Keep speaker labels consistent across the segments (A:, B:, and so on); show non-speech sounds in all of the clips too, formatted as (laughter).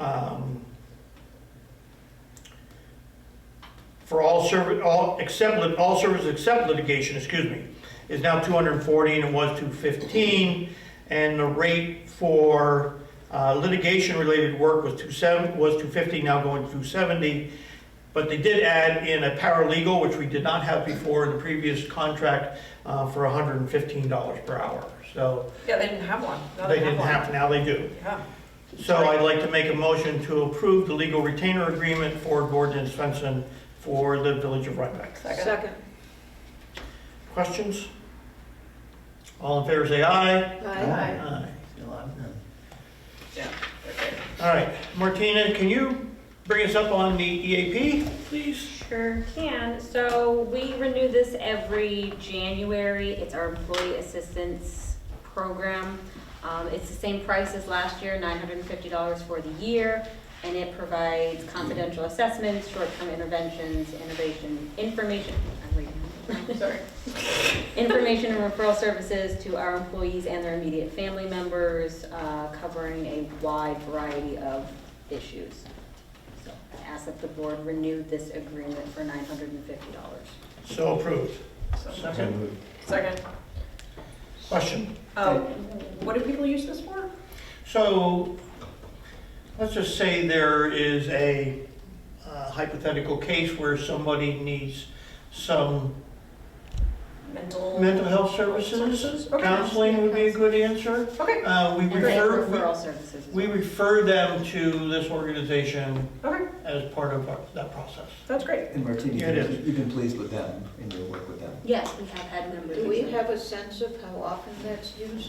A: um, for all service, all, except, lit- all services except litigation, excuse me, is now 240 and it was 215. And the rate for uh, litigation-related work was 27, was 250, now going to 270. But they did add in a paralegal, which we did not have before in the previous contract, uh, for $115 per hour. So
B: Yeah, they didn't have one. Now
A: they didn't have, now they do.
B: Yeah.
A: So I'd like to make a motion to approve the legal retainer agreement for Gordon and Svensson for the Village of Rhinebeck.
B: Second.
A: Questions? All in favor, say aye.
C: Aye.
A: Aye. See a lot of them.
B: Yeah. Okay.
A: All right, Martina, can you bring us up on the EAP, please?
D: Sure can. So we renew this every January. It's our employee assistance program. Um, it's the same price as last year, nine hundred and fifty dollars for the year. And it provides confidential assessments, short-term interventions, innovation, information, I'm reading.
B: Sorry.
D: information and referral services to our employees and their immediate family members, uh, covering a wide variety of issues. So I ask that the board renew this agreement for nine hundred and fifty dollars.
A: So approved.
B: So,
A: Second.
B: Second.
A: Question.
B: Um, what do people use this for?
A: So, let's just say there is a uh, hypothetical case where somebody needs some
B: Mental?
A: mental health services.
B: Okay.
A: Counseling would be a good answer.
B: Okay,
A: Uh, We
D: And
A: refer,
D: referral services. as
A: we we
D: well.
A: refer them to this organization
B: okay,
A: as part of our- that process.
B: that's great.
C: And Martina,
A: Yeah, it is.
C: you've been pleased with them and your work with them?
D: Yes, we have had members.
E: Do we have a sense of how often that's used?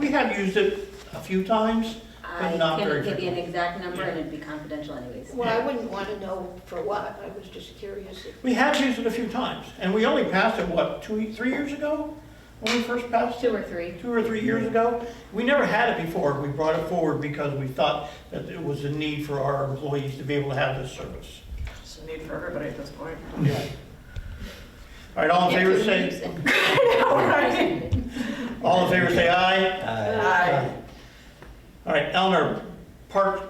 A: We have used it a few times.
D: I
A: but not very
D: can't give you an
A: frequent.
D: exact number and it'd be confidential anyways.
E: Well, I wouldn't want to know for what, I was just curious. if-
A: We have used it a few times, and we only passed it, what, two, three years ago? When we first passed
D: Two
A: it,
D: or three.
A: two or three years ago? We never had it before. We brought it forward because we thought that it was a need for our employees to be able to have this service.
B: It's a need for everybody at this point.
A: Yeah. All right, all in favor say,
D: (laughs) Yeah,
B: Right.
A: all in favor say aye.
C: Uh,
B: Aye.
A: All right, Eleanor, park,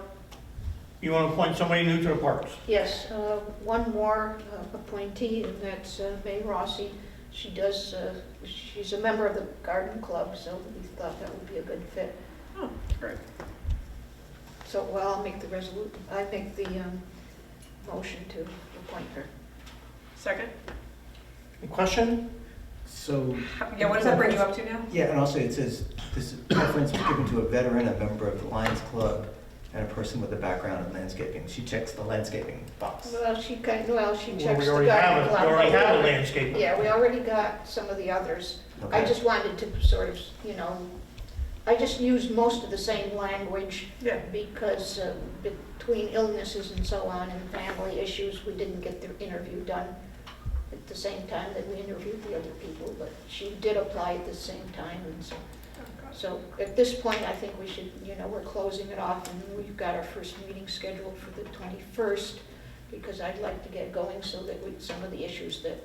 A: you want to appoint somebody new to the parks?
E: Yes, uh, one more uh, appointee, and that's uh, May Rossi. She does, uh, she's a member of the garden club, so we thought that would be a good fit.
B: Oh, great.
E: So, well, I'll make the resolu, I make the um, motion to appoint her.
B: Second.
A: Any question?
C: So,
B: Yeah, what does that bring you up to now?
C: yeah, and also it says, this preference was given to a veteran, a member of the Lions Club, and a person with a background in landscaping. She checks the landscaping box.
E: Well, she kind, well, she
A: Well,
E: checks
A: We
E: the
A: already
E: garden
A: have, a-
E: club.
A: we already have a landscaper.
E: Yeah, we already got some of the others. I
C: Okay.
E: just wanted to sort of, you know, I just used most of the same language
B: Yeah.
E: because uh, between illnesses and so on and family issues, we didn't get the interview done at the same time that we interviewed the other people, but she did apply at the same time and so. So at this point, I think we should, you know, we're closing it off and we've got our first meeting scheduled for the 21st because I'd like to get going so that we, some of the issues that,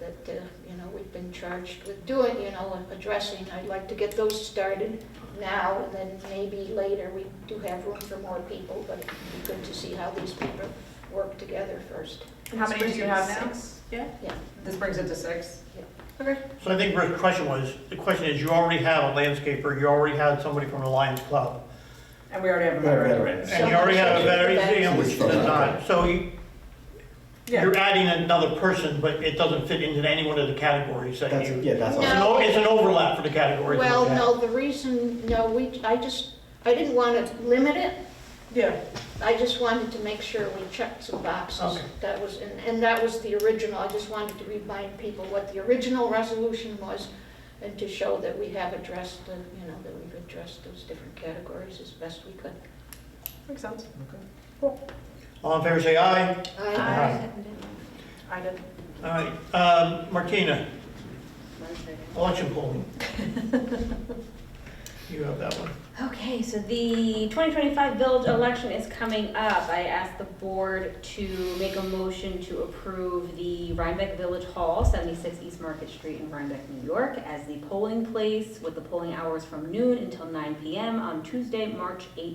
E: that, uh, you know, we've been charged with doing, you know, and addressing, I'd like to get those started now and then maybe later, we do have room for more people, but it'd be good to see how these people work together first.
B: How many do you have now? Yeah.
E: Yeah.
B: This brings it to six?
E: Yeah.
B: Okay.
A: So I think Rick's question was, the question is, you already have a landscaper, you already had somebody from the Lions Club,
B: And we already have a
C: We're
B: veteran.
C: veterans.
A: and you already have a veteran,
E: Veterans.
A: which does not. So you-
B: Yeah.
A: you're adding another person, but it doesn't fit into any one of the categories that
C: That's,
A: you.
C: yeah, that's
A: It's an
C: all.
E: No.
A: o- It's an overlap for the categories.
E: Well,
C: Yeah.
E: no, the reason, no, we, I just, I didn't want to limit it,
B: Yeah.
E: I just wanted to make sure we checked some boxes.
A: Okay.
E: That was, and and that was the original, I just wanted to remind people what the original resolution was and to show that we have addressed, the you know, that we've addressed those different categories as best we could.
B: Makes sense.
A: All in favor, say aye.
E: I-
B: I did.
A: All right, um, Martina, (laughs)
D: One second.
A: election polling. You have that one.
D: Okay, so the 2025 village election is coming up. I asked the board to make a motion to approve the Rhinebeck Village Hall, 76 East Market Street in Rhinebeck, New York, as the polling place with the polling hours from noon until 9 PM on Tuesday, March 18th.